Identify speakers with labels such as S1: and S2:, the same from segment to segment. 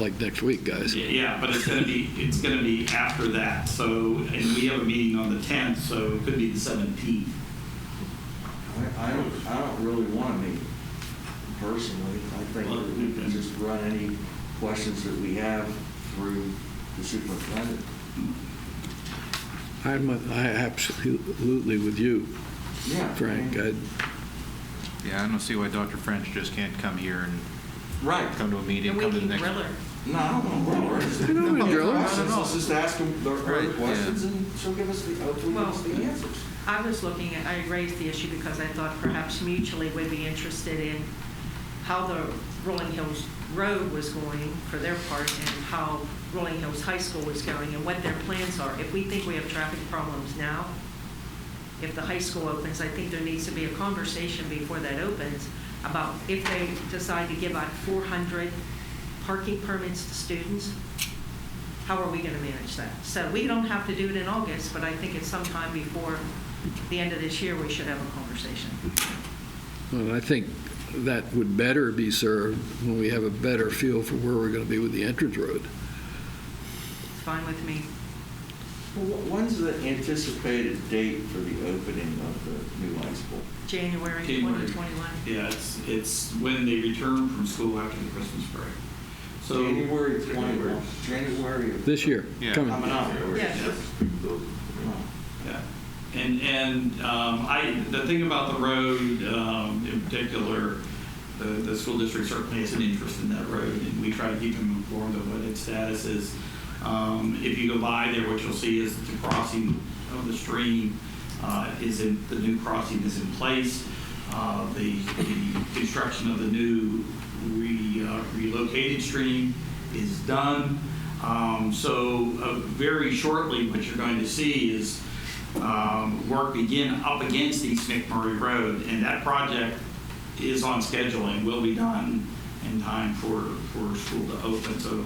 S1: like next week, guys.
S2: Yeah, but it's gonna be, it's gonna be after that, so, and we have a meeting on the tenth, so it could be the seventeenth.
S3: I, I don't, I don't really want to meet personally. I think that we can just run any questions that we have through the superintendent.
S1: I'm, I absolutely with you,
S3: Yeah.
S1: Frank. I,
S4: Yeah, I don't see why Dr. French just can't come here
S3: Right.
S4: and come to a meeting,
S5: And we
S4: come to the next.
S5: can grill her.
S3: No, I don't want to grill her.
S1: I don't wanna
S3: No,
S1: grill her.
S3: I don't know, Just ask them the her
S4: Right,
S3: questions and she'll give us the, hopefully give us the
S5: Well-
S3: answers.
S5: I was looking at, I raised the issue because I thought perhaps mutually we'd be interested in how the Rolling Hills Road was going for their part and how Rolling Hills High School was going and what their plans are. If we think we have traffic problems now, if the high school opens, I think there needs to be a conversation before that opens about if they decide to give out 400 parking permits to students, how are we going to manage that? So we don't have to do it in August, but I think it's sometime before the end of this year, we should have a conversation.
S1: well, I think that would better be served when we have a better feel for where we're going to be with the entrance road.
S5: It's fine with me.
S3: Well, wh- When's the anticipated date for the opening of the new high school?
S5: January
S2: January.
S5: 2021.
S2: Yeah, it's, it's when they return from school after the Christmas break. So.
S3: January 21, January. of-
S1: This year,
S4: Yeah.
S1: coming.
S3: Coming up.
S5: Yeah.
S3: Oh.
S2: Yeah, and, and um, I, the thing about the road um, in particular, the, the school district certainly has an interest in that road, and we try to keep them informed of what its status is. Um, If you go by there, what you'll see is the crossing of the stream uh, is in, the new crossing is in place. Uh, The, the construction of the new re- uh, relocated stream is done. Um, So uh, very shortly, what you're going to see is um, work begin up against East McMurray Road, and that project is on schedule and will be done in time for, for school to open. So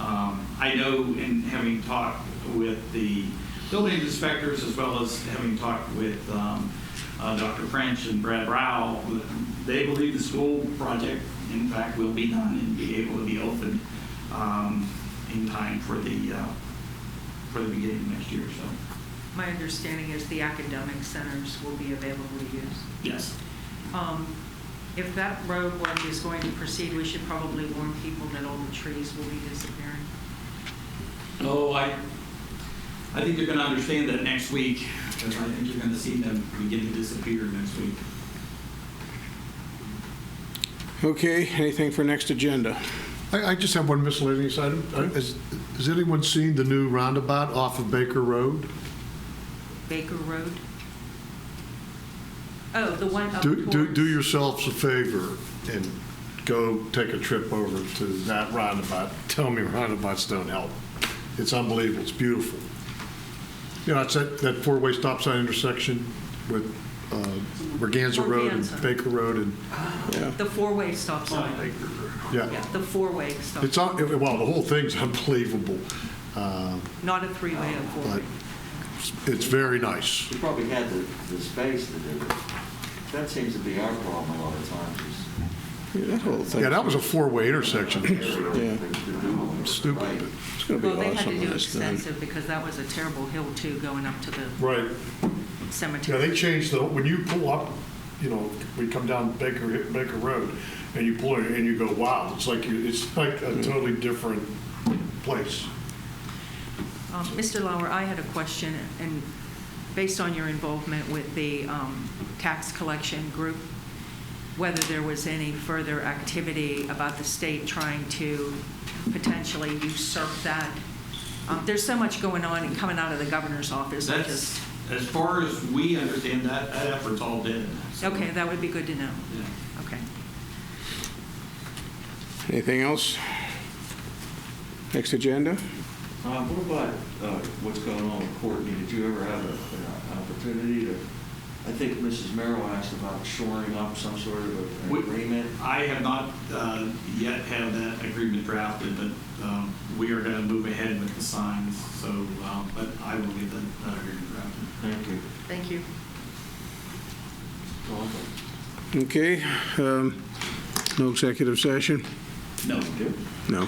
S2: um, I know, in having talked with the building inspectors, as well as having talked with um, uh, Dr. French and Brad Rowell, they believe the school project, in fact, will be done and be able to be opened um, in time for the, uh, for the beginning of next year, so,
S5: My understanding is the academic centers will be available to use.
S2: yes.
S5: Um, If that road work is going to proceed, we should probably warn people that all the trees will be disappearing.
S2: Oh, I, I think you're going to understand that next week, because I think you're going to see them begin to disappear next week.
S6: Okay, anything for next agenda?
S7: I, I just have one miscellaneous item. Uh, Has, has anyone seen the new roundabout off of Baker Road?
S5: Baker Road? Oh, the one up
S7: Do, do,
S5: towards-
S7: do yourselves a favor and go take a trip over to that roundabout. Tell me roundabouts don't help. It's unbelievable. It's beautiful. You know, it's that, that four-way stop sign intersection with, uh, Reganza Road
S5: Braganza.
S7: and Baker Road and,
S5: The four-way stop sign.
S7: yeah.
S5: Yeah, the four-way stop.
S7: It's, un- well, the whole thing's unbelievable. Uh,
S5: Not a
S6: Um,
S5: three-way, a
S7: but
S5: four-way.
S7: it's very nice.
S3: We probably had the, the space to do it. That seems to be our problem a lot of times. is-
S6: Yeah, that whole thing.
S7: Yeah, that was a four-way intersection.
S3: To do it.
S7: Stupid.
S3: Right.
S6: It's going to be
S5: Well, they had
S6: awesome
S5: to
S6: when
S5: do
S6: it's done.
S5: extensive because that was a terrible hill too, going up to the
S7: Right. Yeah,
S5: cemetery.
S7: they changed the, when you pull up, you know, we come down Baker, Baker Road, and you pull in and you go, wow, it's like, you it's like a totally different place.
S5: Um, Mr. Lauer, I had a question, and based on your involvement with the um, tax collection group, whether there was any further activity about the state trying to potentially usurp that. Um, There's so much going on and coming out of the governor's office. I
S2: That's,
S5: just-
S2: as far as we understand, that, that effort's all dead. so,
S5: Okay, that would be good to know.
S2: yeah.
S5: Okay.
S6: Anything else? Next agenda?
S3: Uh, What about uh, what's going on with Courtney? Did you ever have a- an opportunity to, I think Mrs. Merrill asked about shoring up some sort of an
S2: We-
S3: agreement.
S2: I have not uh, yet had that agreement drafted, but um, we are going to move ahead with the signs, so, um, but I will get that that agreement drafted.
S3: Thank you.
S5: Thank you.
S6: Okay, um, no executive session?
S2: No.
S6: No.